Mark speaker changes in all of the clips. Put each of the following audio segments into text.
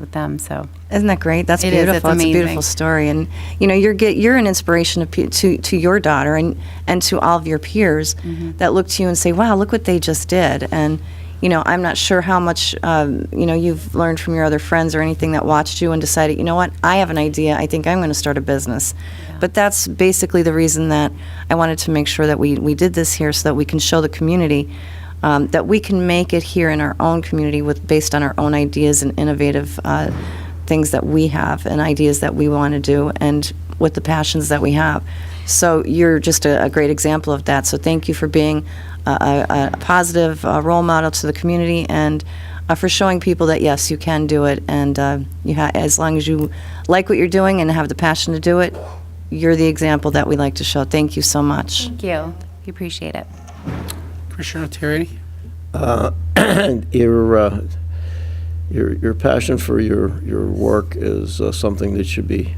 Speaker 1: with them. So
Speaker 2: Isn't that great? That's
Speaker 1: It is. It's
Speaker 2: beautiful. It's a
Speaker 1: amazing.
Speaker 2: beautiful story, and you know, you're get, you're an inspiration to, pe- to to your daughter and and to all of your peers
Speaker 1: Mm-hmm.
Speaker 2: that look to you and say, "Wow, look what they just did." And you know, I'm not sure how much um, you know you've learned from your other friends or anything that watched you and decided, you know what, I have an idea. I think I'm going to start a business. But that's basically the reason that I wanted to make sure that we we did this here so that we can show the community um, that we can make it here in our own community with based on our own ideas and innovative uh, things that we have and ideas that we want to do and with the passions that we have. So you're just a, a great example of that. So thank you for being a, a, a positive uh, role model to the community and uh, for showing people that yes, you can do it, and uh, you ha- as long as you like what you're doing and have the passion to do it, you're the example that we like to show. Thank you so much.
Speaker 1: thank you. We appreciate it.
Speaker 3: Commissioner Terriani?
Speaker 4: Uh, your, uh, your, your passion for your, your work is uh, something that should be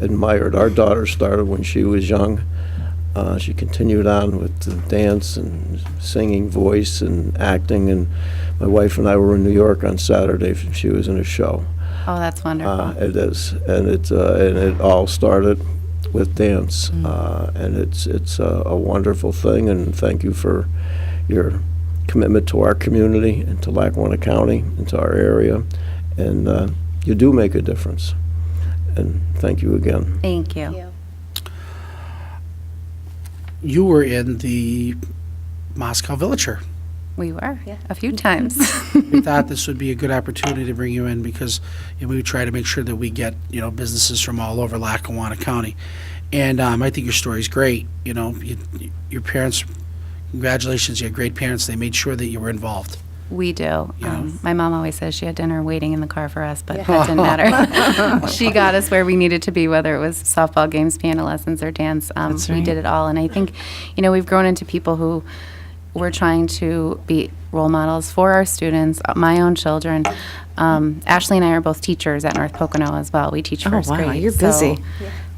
Speaker 4: admired. Our daughter started when she was young. Uh, she continued on with the dance and singing voice and acting. And my wife and I were in New York on Saturday. She was in a show.
Speaker 1: Oh, that's wonderful.
Speaker 4: Uh, it is, and it uh, and it all started with dance, uh, and it's it's a, a wonderful thing. And thank you for your commitment to our community and to Lackawanna County and to our area, and uh, you do make a difference. And thank you again.
Speaker 1: thank you.
Speaker 3: You were in the Moscow Villager.
Speaker 1: We were a few times.
Speaker 3: We thought this would be a good opportunity to bring you in because you know, we try to make sure that we get, you know, businesses from all over Lackawanna County. And um, I think your story's great, you know, you, your parents, congratulations, you had great parents, they made sure that you were involved.
Speaker 1: We do.
Speaker 3: Yeah.
Speaker 1: Um, my mom always says she had dinner waiting in the car for us, but that didn't matter. she got us where we needed to be, whether it was softball games, piano lessons, or dance. Um,
Speaker 2: That's
Speaker 1: We
Speaker 2: right.
Speaker 1: did it all. And I think, you know, we've grown into people who we're trying to be role models for our students, uh, my own children. Um, Ashley and I are both teachers at North Pocono as well. We teach
Speaker 2: Oh,
Speaker 1: first
Speaker 2: wow,
Speaker 1: grade.
Speaker 2: you're busy.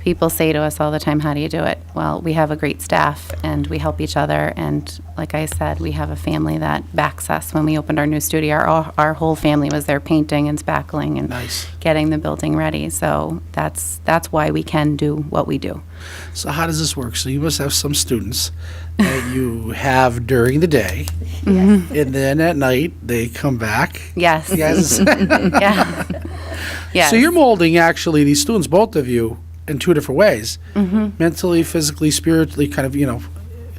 Speaker 1: People say to us all the time, How do you do it? Well, we have a great staff and we help each other. And like I said, we have a family that backs us. When we opened our new studio, our, our whole family was there painting and spackling and
Speaker 3: Nice.
Speaker 1: getting the building ready. So that's, that's why we can do what we do.
Speaker 3: So how does this work? So you must have some students that you have during the day, and then at night they come back.
Speaker 1: Yes.
Speaker 3: Yes.
Speaker 1: Yeah. yes.
Speaker 3: So you're molding actually these students, both of you, in two different ways:
Speaker 1: Mm-hmm.
Speaker 3: mentally, physically, spiritually, kind of. You know,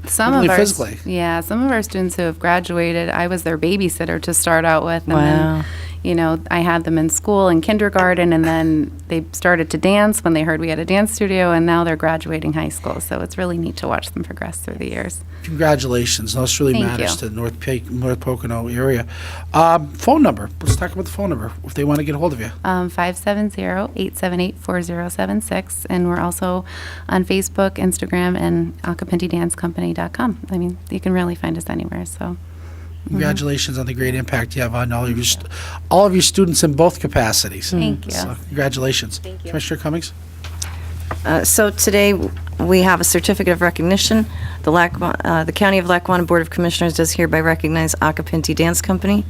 Speaker 1: some
Speaker 3: Only
Speaker 1: of our
Speaker 3: physically.
Speaker 1: yeah some of our students who have graduated i was their babysitter to start out with and
Speaker 2: Wow.
Speaker 1: then you know i had them in school in kindergarten and then they started to dance when they heard we had a dance studio and now they're graduating high school so it's really neat to watch them progress through the years
Speaker 3: congratulations. This really
Speaker 1: Thank
Speaker 3: matters
Speaker 1: you.
Speaker 3: to North Pe- North Pocono area. Um, phone number. Let's talk about the phone number if they want to get a hold of you.
Speaker 1: um, 570-878-4076 and we're also on facebook instagram and acapintidancecompany.com i mean you can really find us anywhere so Mm-hmm.
Speaker 3: Congratulations on the great impact you have on all of your st- all of your students in both capacities.
Speaker 1: Thank you.
Speaker 3: So congratulations, Thank you. Commissioner Cummings.
Speaker 2: Uh, So today, we have a certificate of recognition. The Lackawanna, uh, the County of Lackawanna Board of Commissioners does hereby recognize Acapinti Dance Company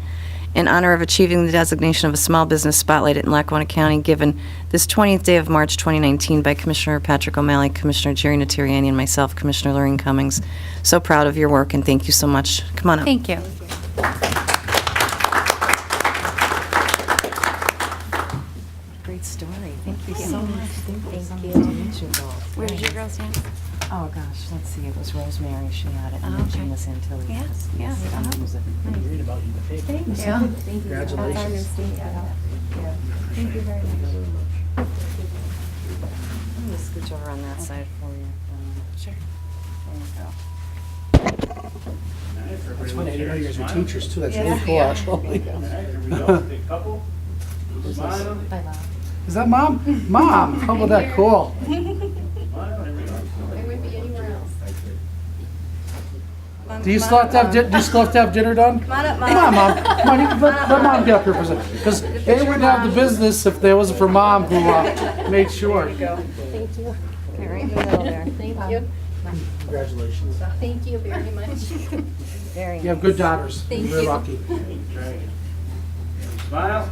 Speaker 2: in honor of achieving the designation of a small business spotlight in Lackawanna County given this 20th day of March 2019 by Commissioner Patrick O'Malley, Commissioner Jerry Natariani, and myself, Commissioner Lorraine Cummings. So proud of your work, and thank you so much. Come on up.
Speaker 1: thank you
Speaker 5: Great story. Thank you so much. Thank you. Nice to meet you all.
Speaker 1: where did your girls dance
Speaker 5: Oh, gosh, let's see, it was Rosemary, she had it, and then
Speaker 1: Oh, Okay.
Speaker 5: Gina Santilli.
Speaker 1: Yeah,
Speaker 5: Yes,
Speaker 1: yeah.
Speaker 5: yes, um, it was a-
Speaker 1: yeah
Speaker 3: Congratulations.
Speaker 5: I'm gonna scooch over on that side for you. Sure. There you go.
Speaker 3: It's funny, I didn't know you guys were teachers too. That's really cool, actually. Is that mom? Mom, how about that? Cool. Do you still have to have, di- do you still have to have dinner done? Come on up, mom. Come on, mom. Come on, you can let, let mom get up here for a second. Because they wouldn't have the business if there wasn't for mom who uh, made sure.
Speaker 6: Thank you.
Speaker 3: Congratulations.
Speaker 6: Thank you very much.
Speaker 5: Very
Speaker 3: You have good daughters.
Speaker 6: Thank
Speaker 3: You're
Speaker 6: you.
Speaker 3: lucky.
Speaker 7: Smile.